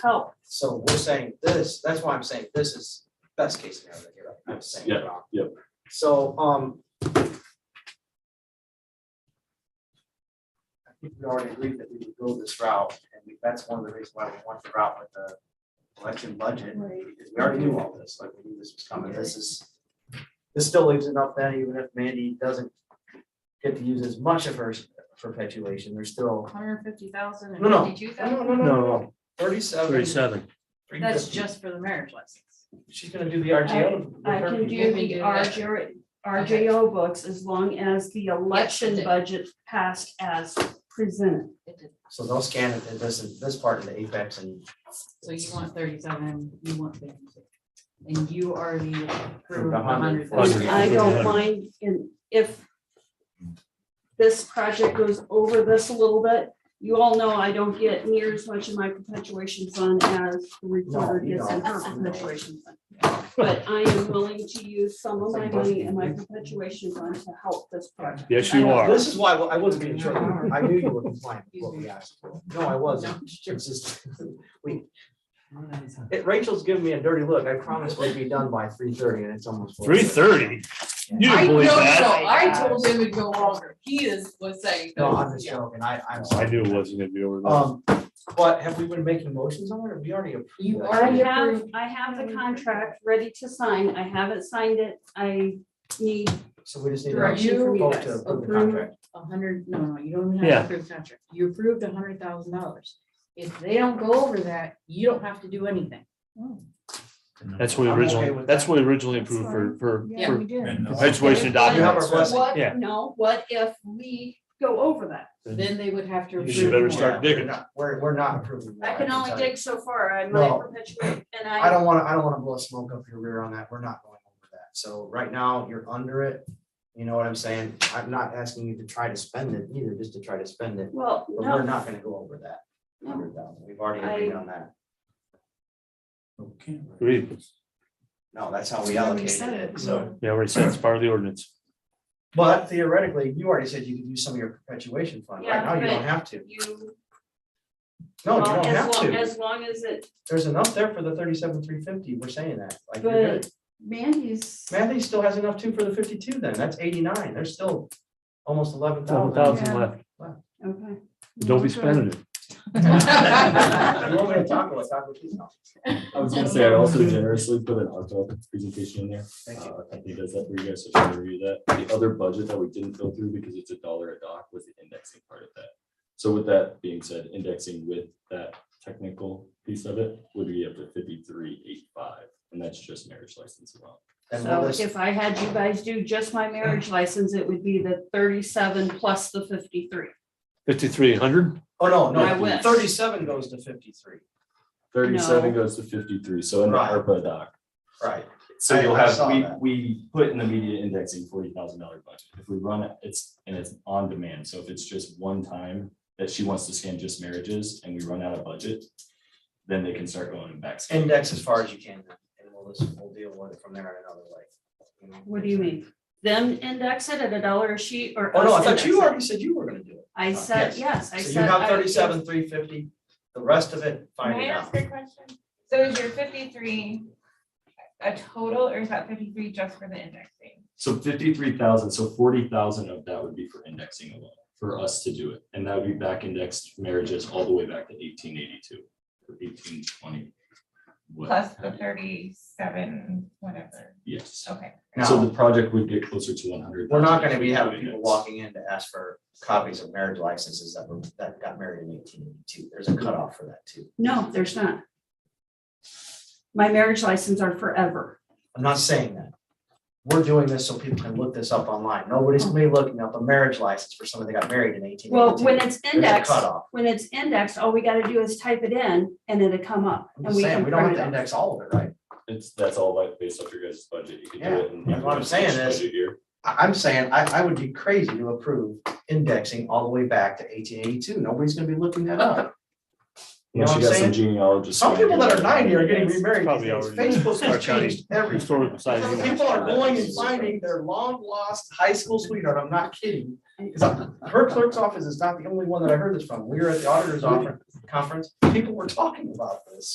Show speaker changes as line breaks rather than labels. Oh,
So we're saying this, that's why I'm saying this is best case scenario that you're, I'm saying.
Yeah,
wrong.
yeah.
So, um. I think we already agreed that we would go this route, and we- that's one of the reasons why we went the route with the election budget,
right.
because we already knew all this, like we knew this was coming, this is. This still leaves enough then, even if Mandy doesn't get to use as much of her s- perpetuation, there's still.
Hundred fifty thousand
No, no.
and fifty-two thousand?
no,
No,
Thirty-seven.
thirty-seven.
That's just for the marriage license.
She's gonna do the RGO. with
Uh, I
her
can
people.
do the RJ RJO books as long as the election
did.
budget passed as presented.
So they'll scan it, this, and this part in the apex and.
So you want thirty-seven, you want fifty-two. And you already approved
The
a
100.
hundred thousand.
I don't mind in, if this project goes over this a little bit, you all know I don't get near as much of my perpetuation fund as the recorder
No, you
gets in her
don't. You don't.
perpetuation fund. But I am willing to use some of my money in my perpetuation fund to help this project.
Yes, you are.
This is why I wasn't being sure, I knew you were compliant with what we asked for. No, I wasn't. It's just, we. It- Rachel's giving me a dirty look, I promised we'd be done by three thirty and it's almost. four
Three thirty? You didn't believe
know,
that?
so I told him it'd go longer. He is, was saying.
No,
that,
I'm just
yeah.
joking, I, I'm.
I
sorry.
knew it wasn't gonna be over there.
Um, but have we been making motions on it, or we already approved?
You
that?
I
already-
have, I have the contract ready to sign. I haven't signed it. I need
So we just need. to
Correct.
direction from you
Vote to
guys.
approve the
Approve.
contract.
A hundred, no, no, you don't even
Yeah.
have to approve the contract. You approved a hundred thousand dollars. If they don't go over that, you don't have to do anything.
Hmm. That's what we
I'm okay
originally,
with
that's
that.
what we originally approved for, for,
Yeah,
for
we did.
perpetuation
You have
our
documents.
blessing.
What,
Yeah.
no, what if we go over that?
Then they would have to.
You
approve
should better
more.
start
Yeah, we're
digging.
not- We're, we're not approving.
I
that,
can only
tell you.
dig so far. I
No.
might perpetuate and
I
I,
don't wanna, I don't wanna blow smoke up your rear on that, we're not going over that, so right now, you're under it. You know what I'm saying, I'm not asking you to try to spend it either, just to try to spend it,
well,
but we're
no,
not gonna go over that.
No.
Hundred thousand, we've already agreed
I-
on that,
Agreed.
no, that's how we
Yeah, we
allocated
said it.
it, so.
Yeah, already said it's part of the ordinance.
But theoretically, you already said you could use some of your perpetuation fund, right
Yeah,
now you don't
but-
have to,
you.
no, you
well,
don't
as
have
long-
to,
As long as it,
there's enough there for the thirty-seven, three fifty, we're saying that, like, you're good.
but Mandy's,
Matthew still has enough too for the fifty-two then, that's eighty-nine, there's still almost eleven
Seven
thousand.
thousand left.
okay.
Don't be spending it.
You want me to talk about taco Tuesday?
I was gonna say, I also generously put an October presentation in there.
Thank you.
Uh, I think that's that for you guys to try to review that. The other budget that we didn't go through because it's a dollar a doc was the indexing part of that. So with that being said, indexing with that technical piece of it would be up to fifty-three, eight, five, and that's just marriage license alone.
And
So
we'll just-
if I had you guys do just my marriage license, it would be the thirty-seven plus the fifty-three.
Fifty-three hundred?
Oh, no,
I
no,
wish.
thirty-seven goes to fifty-three,
Thirty-seven goes to fifty-three, so in the
Right.
ARPA doc.
right,
So
I-
you'll
I
have,
saw
we,
that.
we put in the media indexing forty thousand dollar budget. If we run it, it's, and it's on demand. So if it's just one time that she wants to scan just marriages and we run out of budget, then they can start going back. scanning.
index as far as you can, and we'll just, we'll deal with it from there in another way. you know?
What do you mean? Them index it at a dollar a sheet or?
Oh, no, I
us
thought
index
you
it?
already said you were gonna do it,
I said, yes, I
so
said.
you have
I-
thirty-seven, three fifty, the rest of it, find it out.
a question? So is your fifty-three a total or is that fifty-three just for the indexing?
So fifty-three thousand, so forty thousand of that would be for indexing alone, for us to do it. And that would be back indexed marriages all the way back to eighteen eighty-two or eighteen twenty.
Plus the thirty-seven, whatever.
Yes.
Okay.
So
Now,
the project would get closer to one hundred.
we're not gonna be having people walking in to ask for copies of marriage licenses that were, that got married in eighteen eighty-two, there's a cutoff for that too.
No, there's not. My marriage license are forever.
I'm not saying that. We're doing this so people can look this up online. Nobody's gonna be looking up a marriage license for somebody that got married in eighteen eighty-two.
Well, when it's
There's a
indexed,
cutoff.
when it's indexed, all we gotta do is type it in and it'll come up. and
I'm just saying,
can
we don't have
print
to
it out.
index all of it, right?
It's, that's all like based off your guys' budget, you could do
Yeah,
it. in-
that's what I'm saying is-
budget year.
I, am saying, I, I would be crazy to approve indexing all the way back to eighteen eighty-two. Nobody's gonna be looking that up. You know
Once
what I'm
you got some
saying?
genealogists.
Some people that are ninety are getting
Yes.
remarried.
Probably
these days.
already
Facebook
start
has
counting
changed everything.
Historical society.
People are going and finding their long lost high school sweetheart, I'm not kidding. 'Cause I- Her clerk's office is not the only one that I heard this from, we were at the auditor's office conference, people were talking about this.